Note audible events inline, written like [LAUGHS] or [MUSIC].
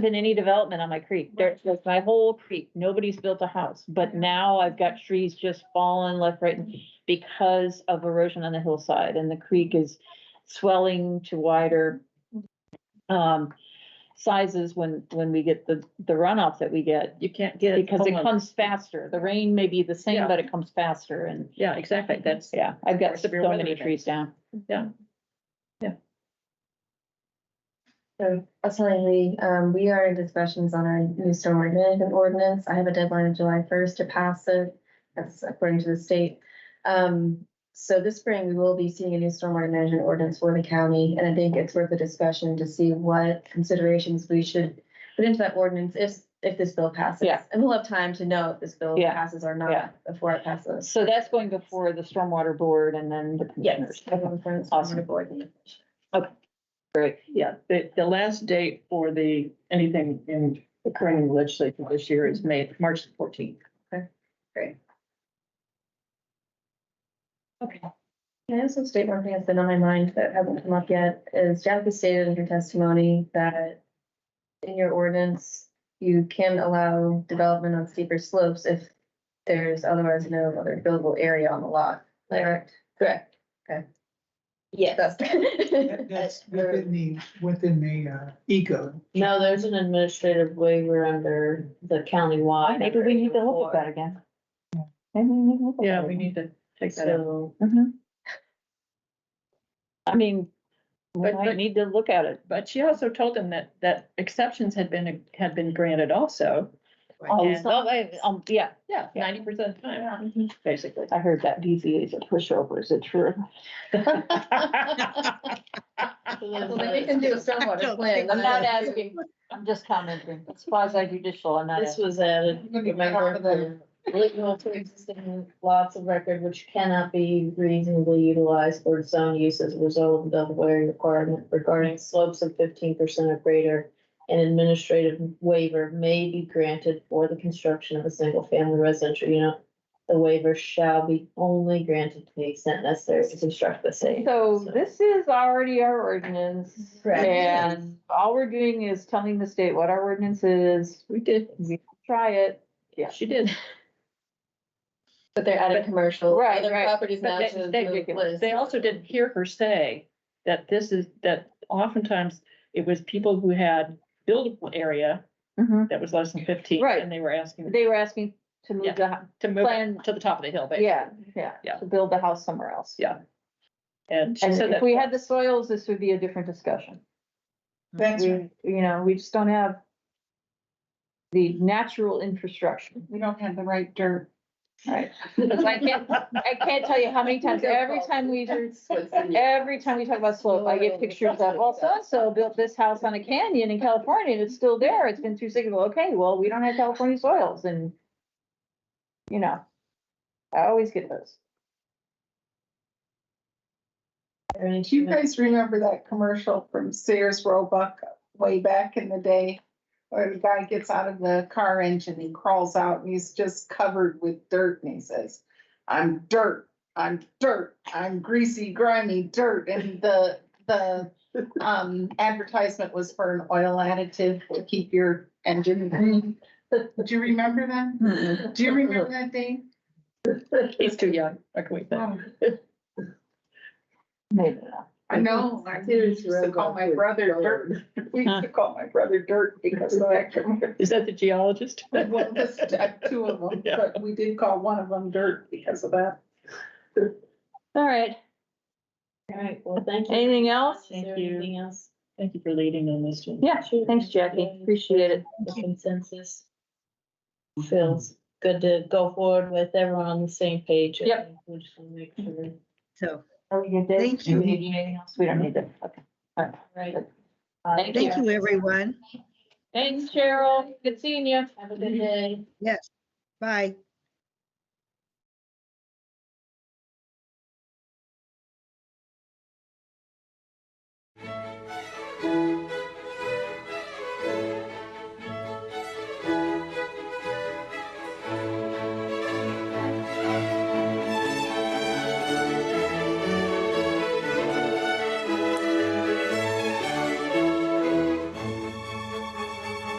been any development on my creek. There's, that's my whole creek. Nobody's built a house, but now I've got trees just falling left, right, and- because of erosion on the hillside and the creek is swelling to wider um, sizes when, when we get the, the runoff that we get, You can't get. because it homeowners- comes faster. The rain may be the same, Yeah. but it comes faster and, Yeah, exactly. That's, yeah, I've got Or so severe weather many events. trees down. So I was telling Lee, um, we are in discussions on our new stormwater management ordinance. I have a deadline of July first to pass it. That's according to the state. Um, so this spring, we will be seeing a new stormwater management ordinance for the county, and I think it's worth a discussion to see what considerations we should put into that ordinance if, if this bill passes. Yeah. And we'll have time to know if this bill Yeah. passes or Yeah. not before it passes. So that's going before the stormwater board and then the commissioners. Yes. everyone from the Awesome. Stormwater Board. Great. yeah, the, the last date for the, anything in occurring in legislature this year is May, March fourteenth. Okay. Can I also state one thing that's been on my mind that hasn't come up yet is Jackie stated in her testimony that in your ordinance, you can allow development on steeper slopes if there's otherwise no other buildable area on the lot, correct? Correct. Okay. Yes. [LAUGHS] That- That's within the, within the uh, eco. No, there's an administrative waiver under the countywide. Maybe we need to look at that again. Maybe we need to look at Yeah, that we again. need to take that out. So, Mhm. I mean, we But- might but- need to look at it. But she also told them that, that exceptions had been, had been granted also. Oh, And- so- um, yeah, Yeah, Yeah. ninety percent of the time, Mhm. basically. I heard that BZA is a pushover, is it [LAUGHS] true? [LAUGHS] so Well, there's then we a- can do [LAUGHS] a stormwater plan. I'm not asking, I'm just commenting, it's quasi judicial, I'm not. This was added, remember, the legal to existing lots of record which cannot be reasonably utilized for its own use as a result of the Delaware requirement regarding slopes of fifteen percent or greater. An administrative waiver may be granted for the construction of a single-family residential unit. The waiver shall be only granted to the extent necessary to construct the same. So this is already our ordinance. Correct. And all we're doing is telling the state what our ordinance is, We did, we try it. Yeah. she did. But they're adding commercial. Right, other right. Properties now But to they- the They list. they also didn't hear her say that this is, that oftentimes it was people who had buildable area Mhm. that was less than fifteen. Right. And they were asking They were asking to move the, hou- to move Plan- it to the top of the hill, basically. yeah, yeah, Yeah. to build the house somewhere else. Yeah. And she And said if that, we had the soils, this would be a different discussion. That's We- right. You know, we just don't have the natural infrastructure. We don't have the right dirt. Right. I can't, I can't tell you how many times, every time we, do- every time we talk about slope, I get pictures of, well, so-and-so built this house on a canyon in California and it's still there. It's been through six, well, okay, well, we don't have California soils and, you know, I always get those. Are there any Do you guys remember that commercial from Sears Roebuck way back in the day? Where the guy gets out of the car engine, he crawls out and he's just covered with dirt and he says, I'm dirt, I'm dirt, I'm greasy, grimy dirt. And the, the, um, advertisement was for an oil additive to keep your engine green. Do you remember that? Do you remember that, Dave? he's too young. What can we say? Oh. Maybe not. I know, I used to call my brother dirt, we used to call my brother dirt because of that. Is that the geologist? Well, this, I have two of them, but we did call one of them dirt because of that. All right, All right, well, thank you. anything else? Is there Thank you. anything else? Thank you for leading on this one. Yeah, thanks Jackie, appreciate it. The consensus feels good to go forward with everyone on the same page. I Yep. think We just want to make sure. So, Have a good day. Thank you. Do we need anything else? We don't need that, okay. Right. Uh, Thank thank you, everyone. Thanks Cheryl, good seeing you. Have a Mm-hmm. good day. Yes, bye.